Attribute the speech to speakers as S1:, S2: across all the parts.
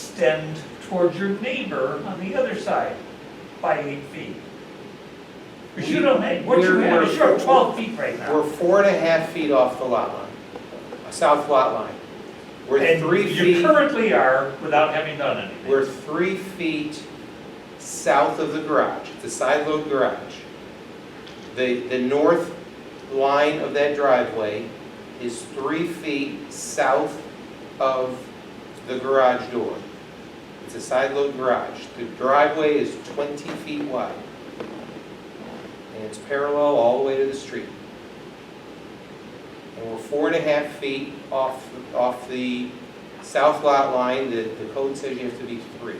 S1: extend towards your neighbor on the other side by eight feet. Because you don't have, what you
S2: We're-
S1: have is you're
S2: we're-
S1: at twelve feet right
S2: We're
S1: now.
S2: four and a half feet off the lot line, uh, south lot line. We're three
S1: And you
S2: feet,
S1: currently are without having done anything.
S2: we're three feet south of the garage, the side load garage. The, the north line of that driveway is three feet south of the garage door. It's a side load garage. The driveway is 20 feet wide. And it's parallel all the way to the street. And we're four and a half feet off, off the south lot line. The, the code says you have to be three.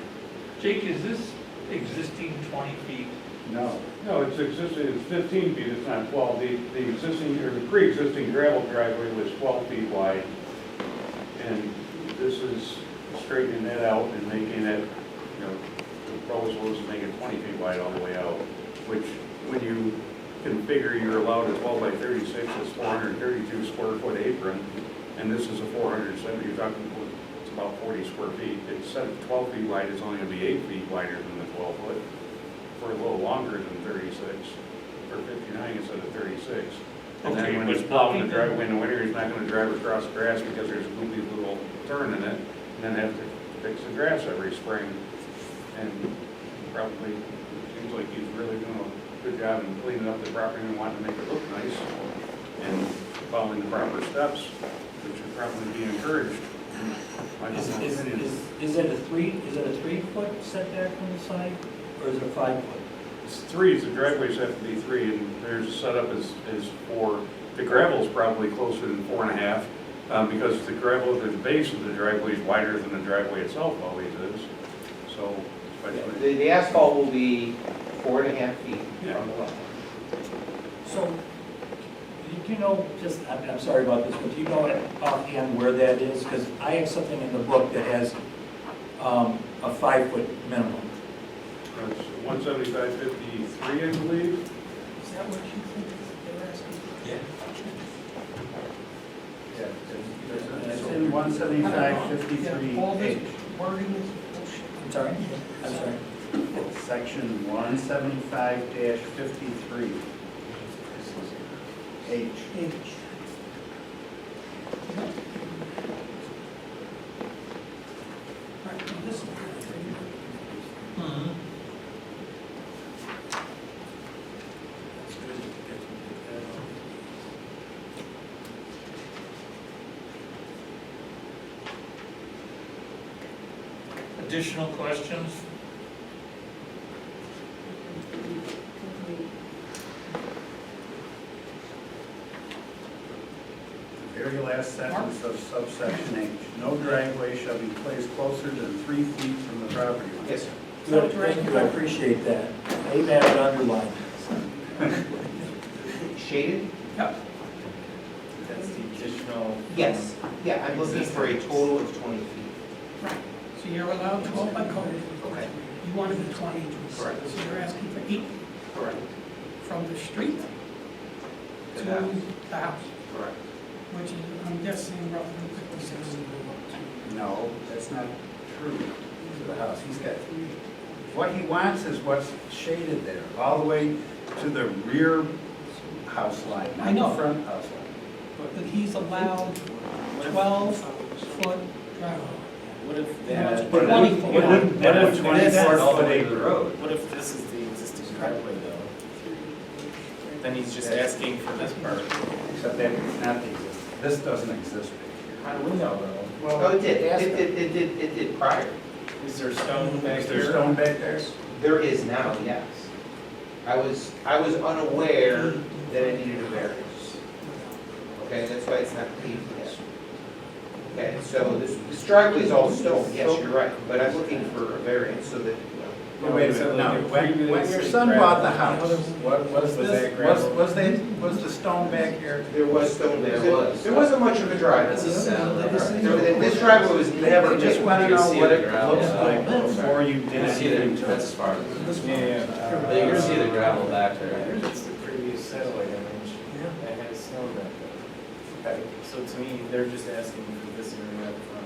S1: Jake, is this existing twenty feet?
S3: No, no, it's existing, it's 15 feet, it's not 12. The, the existing, or the pre-existing gravel driveway was 12 feet wide. And this is straightening that out and making it, you know, the proposal is to make it 20 feet wide all the way out, which when you configure, you're allowed a 12 by 36, it's 432 square foot apron. And this is a 470, you're talking, it's about 40 square feet. Instead of 12 feet wide, it's only going to be eight feet wider than the 12 foot for a little longer than thirty-six, or fifty-nine instead of thirty-six. And
S1: Okay,
S3: then when
S1: but
S3: he's plowing the
S1: nothing-
S3: driveway in the winter, he's not gonna drive across grass because there's a loopy little turn in it, and then have to fix the grass every spring. And probably, it seems like he's really doing a good job in cleaning up the property and wanting to make it look nice, and following the proper steps, which would probably be encouraged. in my
S4: Is, is,
S3: opinion.
S4: is, is it a three, is it a three-foot setback from the side, or is it a five-foot?
S3: It's three, the driveways have to be three, and there's setup is, is four. The gravel's probably closer than four and a half, um, because the gravel, the base of the driveway is wider than the driveway itself always is, so. especially-
S2: The, the asphalt will be four and a half feet from the lot.
S4: So, do you know, just, I'm, I'm sorry about this, but do you know offhand where that is? Because I have something in the book that has, um, a five-foot minimum.
S3: It's one seventy-five fifty-three, I believe.
S5: Is that what you think they were asking?
S4: Yeah.
S6: It's in one seventy-five fifty-three
S5: Yeah, All
S6: H,
S5: this wording is bullshit.
S4: I'm sorry? I'm sorry.
S6: section one seventy-five fifty-three H.
S5: H. Right, now this is-
S1: Additional questions?
S6: The Very last sentence of subsection H, no driveway shall be placed closer than three feet from the property line.
S2: Yes, sir.
S4: Good, thank you, I appreciate that. Amen, and underlined.
S2: Shaded?
S7: That's the additional.
S2: Yes, yeah, I'm looking for a total of twenty feet.
S5: So you're allowed twelve by code.
S2: Okay.
S5: You wanted the twenty.
S2: Correct.
S5: So you're asking for eight
S2: Correct.
S5: from the street to
S2: To
S5: the
S2: the house.
S5: house,
S2: Correct.
S5: which is, I'm guessing roughly fifty-six.
S6: No, that's not true to the house. He's got, what he wants is what's shaded there, all the way to the rear house line,
S5: I
S6: not
S5: know.
S6: the front house line.
S5: But he's allowed twelve foot driveway.
S7: What if
S5: That's
S7: that?
S5: pretty- What if-
S7: What if-
S3: That
S7: what
S3: would
S7: if
S3: twenty-four
S7: that's-
S3: foot acre road.
S7: What if this is the existing driveway though? Then he's just asking for this part.
S6: Except that it's not the, this doesn't exist.
S7: How do we know
S2: Oh, it did, it did, it did, it did prior.
S7: though? Is there stone back
S6: Is there
S7: there?
S6: stone back there?
S2: There is now, yes. I was, I was unaware that I needed a variance. Okay, that's why it's not paved yet. Okay, so this, this driveway is all stone, yes, you're right, but I'm looking for a variance so that, you know,
S6: No, Wait a minute, no, when, when your son bought the house, what,
S7: Was
S6: was this,
S7: that
S6: was,
S7: gravel?
S6: was that, was the stone back here?
S2: there was stone there.
S7: There was.
S2: There wasn't much of a driveway.
S7: This is-
S2: There- This driveway was
S6: They
S2: never.
S6: just
S2: made.
S6: wanna
S7: You can
S6: know
S7: see
S6: what
S7: the
S6: it
S7: gravel.
S6: looks like
S4: Yeah.
S6: before you did anything to it.
S7: far.
S6: Yeah.
S7: But you can see the gravel back there. It's the previous satellite image.
S4: Yeah.
S7: It had snow back there. So to me, they're just asking for this area up front.